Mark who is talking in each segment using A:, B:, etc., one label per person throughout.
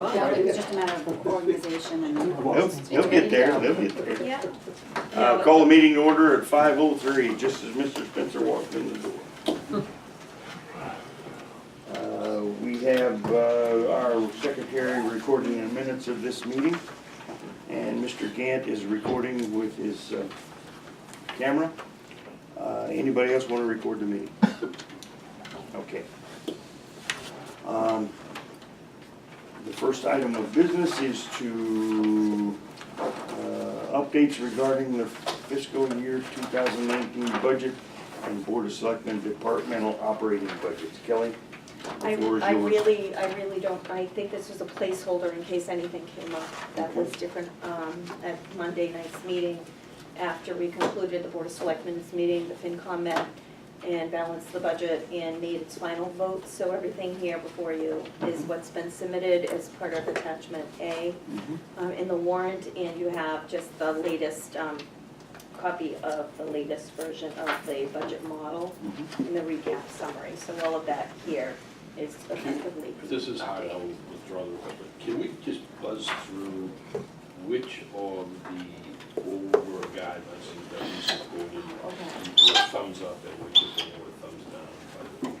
A: Yeah, it's just a matter of organization and.
B: They'll, they'll get there, they'll get there.
A: Yeah.
B: Uh, call the meeting to order at five oh three, just as Mr. Spencer walked in the door. Uh, we have, uh, our secretary recording the minutes of this meeting, and Mr. Gant is recording with his, uh, camera. Uh, anybody else wanna record the meeting? Okay. Um, the first item of business is to uh, updates regarding the fiscal year 2019 budget and Board of Selectmen departmental operating budgets. Kelly,
C: I,
B: the floor is
C: I
B: yours.
C: really, I really don't, I think this was a placeholder in case anything came up that was different, um, at Monday night's meeting. After we concluded the Board of Selectmen's meeting, the FinCom met and balanced the budget and made its final vote. So everything here before you is
B: Mm-hmm.
C: what's been submitted as part of attachment A
B: Mhm.
C: um, in the warrant, and you have just the latest um, copy of the latest version of the budget model
B: mm-hmm.
C: and the recap summary. So all of that here is effectively. the
D: This is high
C: update.
D: level withdrawal, but can we just buzz through which of the over guidelines that we supported?
C: Oh,
D: were Thumbs up and which of them were thumbs down?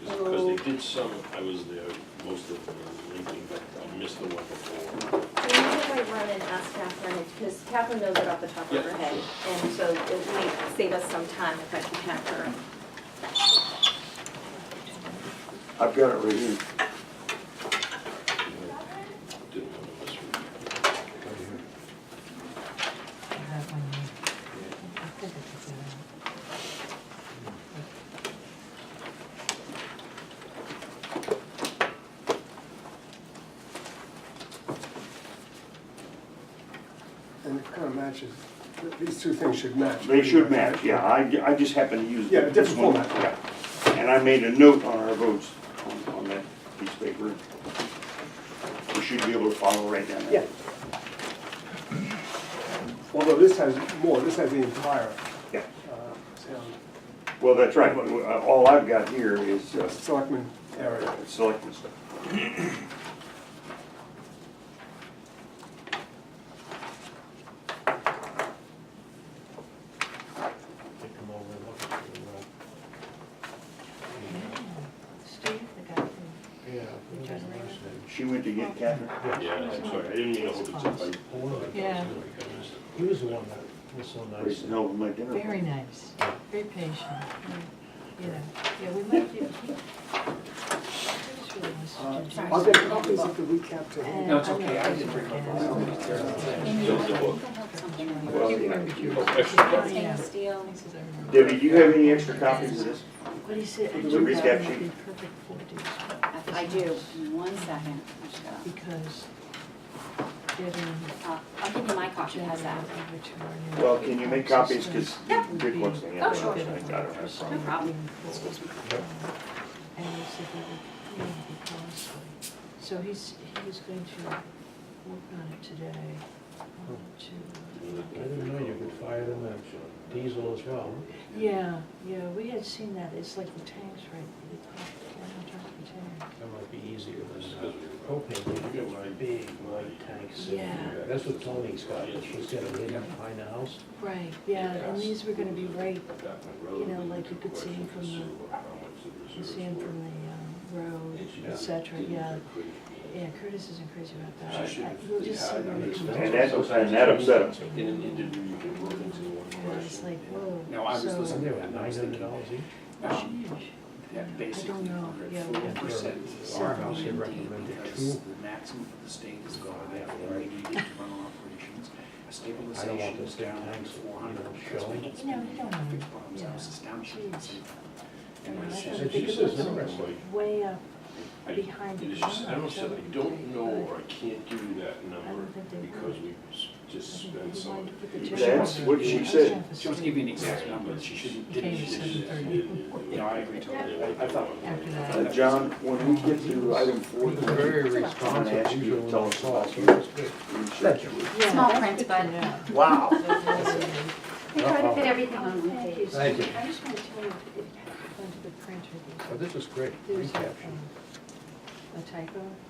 D: Because they did some, I was there, most of them were linking, but I missed the one before.
C: So you might run and ask Catherine, because Catherine knows it off the top of her
D: Yeah.
C: head, and so it might save us some time if I can have her.
B: I've got it right here.
D: Didn't want to miss one.
E: And it kind of matches, these two things should match.
B: They should match, yeah. I, I just happen to use.
E: Yeah, different
B: this one.
E: format.
B: Yeah. And I made a note on our votes on, on that piece of paper. We should be able to follow right down
E: Yeah.
B: there.
E: Although this has more, this has the entire
B: Yeah.
E: uh, sound,
B: Well, that's right. All I've got here is uh,
E: selectmen area.
B: selectmen stuff.
F: Take them over and look at the,
G: Steve, the guy from,
F: uh, yeah. it was nice and-
B: She went to get Catherine.
D: Yeah, I'm sorry, I didn't mean to hold it up. I-
G: Yeah.
F: He was the one that was so nice.
B: Grayson helped my dinner.
G: very nice, very patient, you know, yeah, we might give.
E: I'll get Uh, copies of the recap to him.
G: No, it's okay, I didn't bring
B: Well,
G: You
B: yeah.
G: remembered you.
D: Oh, extra
G: Yeah.
D: copy.
A: Stainless steel.
B: Debbie, do you have any extra copies of this?
G: What he said, I
B: The
G: do
B: recap
G: that
B: sheet.
G: would be perfect for this,
A: I do, in one second. I just gotta-
G: because getting.
A: uh, I'll give you my copy, how's that?
B: Well, can you make copies, because Dick wants to
A: Oh,
B: have
A: sure.
B: one, I got it, I saw
A: No
B: it.
A: problem. Excuse me.
G: And he said that would really be costly. So he's, he was going to work on it today, um, to,
B: Hmm.
F: I didn't know you could fire them at diesel as well.
G: yeah, yeah, we had seen that, it's like the tanks, right? They call it the tank, the tank.
F: That might be easier than uh, propane, you get my big white tanks.
G: Yeah.
F: That's what Tony's got, she's got a hidden behind the house.
G: Right, yeah, and these were gonna be right,
D: You
G: know, like you could see him from the- you see them from the, um, road, et cetera, yeah. Yeah, Curtis isn't crazy about
D: She
G: that.
D: should-
G: I- We'll just see
D: yeah, I
G: where we come
D: understand.
G: out.
B: And that, and that upset him.
D: In an interview, you can work into one
G: And I was
D: question.
G: like, whoa.
H: No, I was
G: so-
F: And
H: listening.
F: they were nine hundred dollars each.
H: Um,
G: Sheesh.
H: That
G: I
H: basically
G: don't know,
H: hundred
G: yeah.
H: four percent is
F: Our
H: our
F: house had recommended
H: because
F: two.
H: the maximum for the state is gone, therefore we needed to run operations. Stabilization
F: those
H: is down
F: big
H: to
F: tanks,
H: four hundred.
F: you know, showing.
H: Fixed
G: No, you don't want them.
H: bombs,
G: Yeah.
H: house is down to
G: Jeez.
H: 100%. And
G: And
H: my
G: I
H: sister-
G: thought
F: she
G: it
F: says
G: was
F: no.
G: Way up
D: I-
G: behind
D: it
G: the
D: is just- I
G: barn,
D: almost said, I
G: so-
D: don't know, or I can't do that
G: I
D: number,
G: don't think they
D: because
G: would.
D: we s- just
G: I think
D: spent
G: they
D: so
G: wanted to
D: much.
G: put the
D: She
G: children
B: wants
G: on
B: what
G: the
B: she
G: bus
B: said.
G: half a
H: She wants to give me an
G: second.
H: exact number, but she shouldn't,
G: It came
H: didn't,
G: to
H: she
G: seven
H: didn't.
G: thirty.
H: You know, I agree totally. I- I thought,
G: After
B: Uh,
G: that,
B: John, when we get to item four,
F: He was very
B: I'm gonna ask
F: responsive,
B: you to
F: usually
B: tell
F: when I
B: us
F: saw
B: about
F: it, he
B: you.
F: was good.
G: yeah,
A: Small
G: that's
A: print,
G: good
A: but-
G: to know.
B: Wow.
C: We try to fit everything on one
G: Thank
C: page.
G: you.
F: Thank you.
G: I just want to tell you, it happened to the printer.
F: But Oh, this is great,
G: There's a,
F: recapture.
G: um, a typo